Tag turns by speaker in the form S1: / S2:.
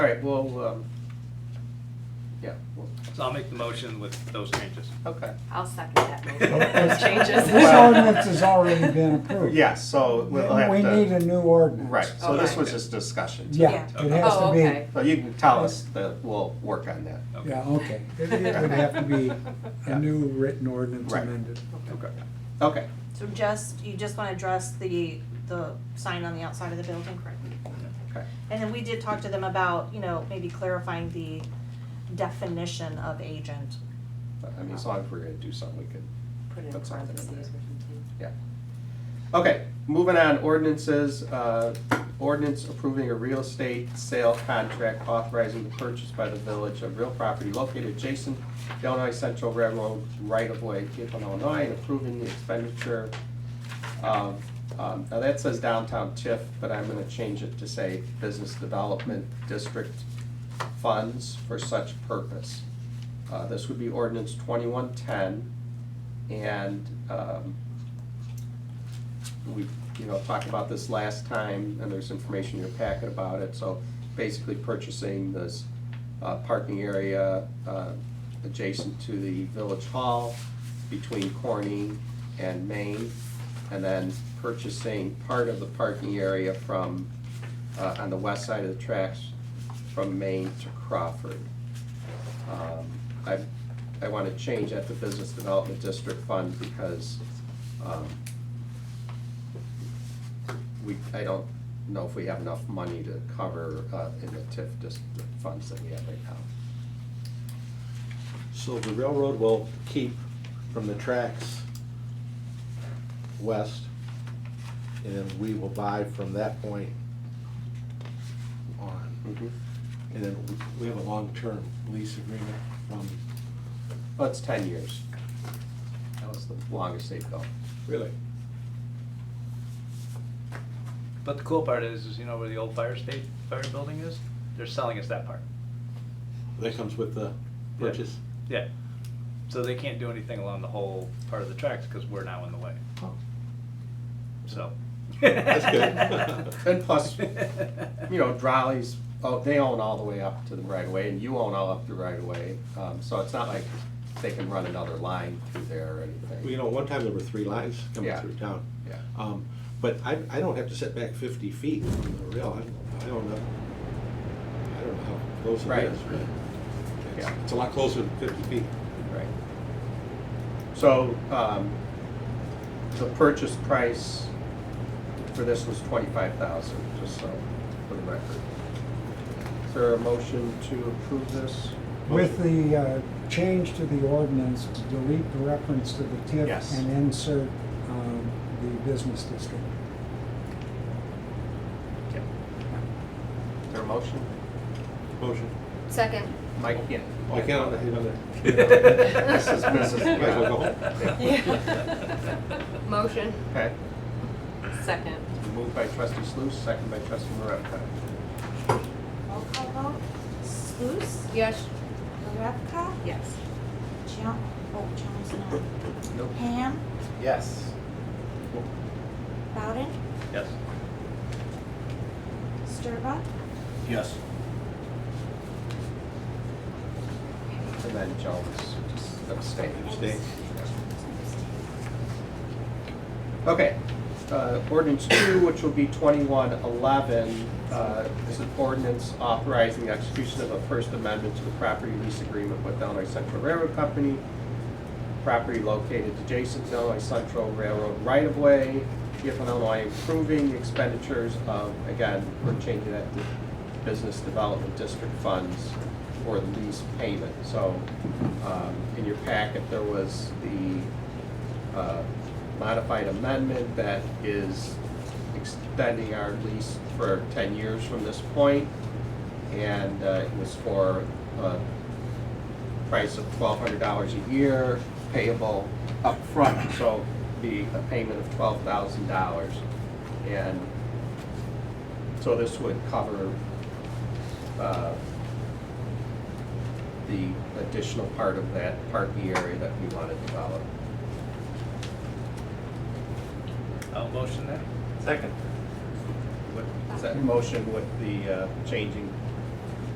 S1: All right, well, um, yeah, well,
S2: So I'll make the motion with those changes.
S1: okay.
S3: I'll second that motion with
S4: Okay.
S3: those changes.
S4: This
S1: Well-
S4: ordinance has already been approved.
S1: Yes, so we'll have to.
S4: We need a new ordinance.
S1: Right, so this
S3: Okay.
S1: was just discussion.
S4: Yeah,
S3: Yeah.
S4: it has
S3: Oh,
S4: to be,
S3: okay.
S1: So you can tell us that we'll work on that.
S4: yeah, okay. It it would have to be a new written ordinance
S1: Right.
S4: amended.
S2: Okay.
S1: Okay,
S5: So just, you just wanna address the, the sign on the outside of the building, correct?
S1: okay.
S5: And then we did talk to them about, you know, maybe clarifying the definition of agent.
S1: But, I mean, as long as we're gonna do something, we could,
S3: Put it in
S1: That's all.
S3: parentheses or something.
S1: yeah. Okay, moving on, ordinances, uh, ordinance approving a real estate sale contract authorizing the purchase by the village of real property located adjacent to Illinois Central Railroad right-of-way, Cleveland, Illinois, and approving the expenditure of, um, now that says downtown TIF, but I'm gonna change it to say Business Development District funds for such purpose. Uh, This would be ordinance twenty-one ten, and um, we, you know, talked about this last time, and there's information in your packet about it, so basically purchasing this uh, parking area uh, adjacent to the village hall between Corning and Main, and then purchasing part of the parking area from, uh, on the west side of the tracks from Main to Crawford. Um, I, I want to change that to Business Development District Fund because um, we, I don't know if we have enough money to cover uh, in the TIF dis- the funds that we have right now.
S6: So the railroad will keep from the tracks west, and we will buy from that point on. And then we- we have a long-term lease agreement from.
S1: Well, it's ten years. That was the longest they've gone.
S6: Really?
S2: But the cool part is, is you know where the old fire state, fire building is? They're selling us that part.
S6: That comes with the
S2: Yeah.
S6: purchase?
S2: Yeah. So they can't do anything along the whole part of the tracks because we're now in the way,
S6: Oh,
S2: so.
S6: That's good.
S1: And plus, you know, Drolley's, oh, they own all the way up to the right of way, and you own all up to the right of way. Um, So it's not like they can run another line through there or anything.
S6: Well, You know, one time there were three lines coming
S1: Yeah.
S6: through town.
S1: Yeah.
S6: Um, But I, I don't have to set back fifty feet from the rail, I, I don't know, I don't know how close
S1: Right.
S6: it is, but it's-
S1: Yeah.
S6: it's a lot closer than fifty feet.
S1: Right. So, um, the purchase price for this was twenty-five thousand, just so, for the record. Is there a motion to approve this?
S4: With the uh, change to the ordinance, delete the reference to the TIF
S1: Yes.
S4: and insert um, the business district.
S1: Yeah. Is there a motion?
S6: Motion.
S3: Second.
S1: Mike, yeah.
S6: Oh, I can't, I can't.
S1: This is, this is.
S6: Might as well go
S3: Motion.
S1: Okay,
S3: Second.
S1: moved by trustee Sluse, second by trustee Moravka.
S5: Roll call vote, Sluse,
S3: Yes.
S5: Maravka,
S3: Yes.
S5: Jones, oh, Jones, no.
S1: Nope.
S5: Ham,
S1: Yes.
S5: Bowden,
S2: Yes.
S5: Sturba,
S6: Yes.
S1: And then Jones, just abstain.
S6: Abstain.
S1: Okay, uh, ordinance two, which will be twenty-one eleven, uh, is an ordinance authorizing the execution of a First Amendment to the property lease agreement with Illinois Central Railroad Company, property located adjacent to Illinois Central Railroad right-of-way, Giffen, Illinois, improving the expenditures of, again, we're changing that to Business Development District funds for the lease payment. So, um, in your packet, there was the, uh, modified amendment that is extending our lease for ten years from this point, And, uh, it was for, uh, price of twelve hundred dollars a year payable upfront, so be a payment of twelve thousand dollars. And so this would cover, uh, the additional part of that parking area that we want to develop.
S2: I'll motion that.
S1: Second. Is that motion with the, uh, changing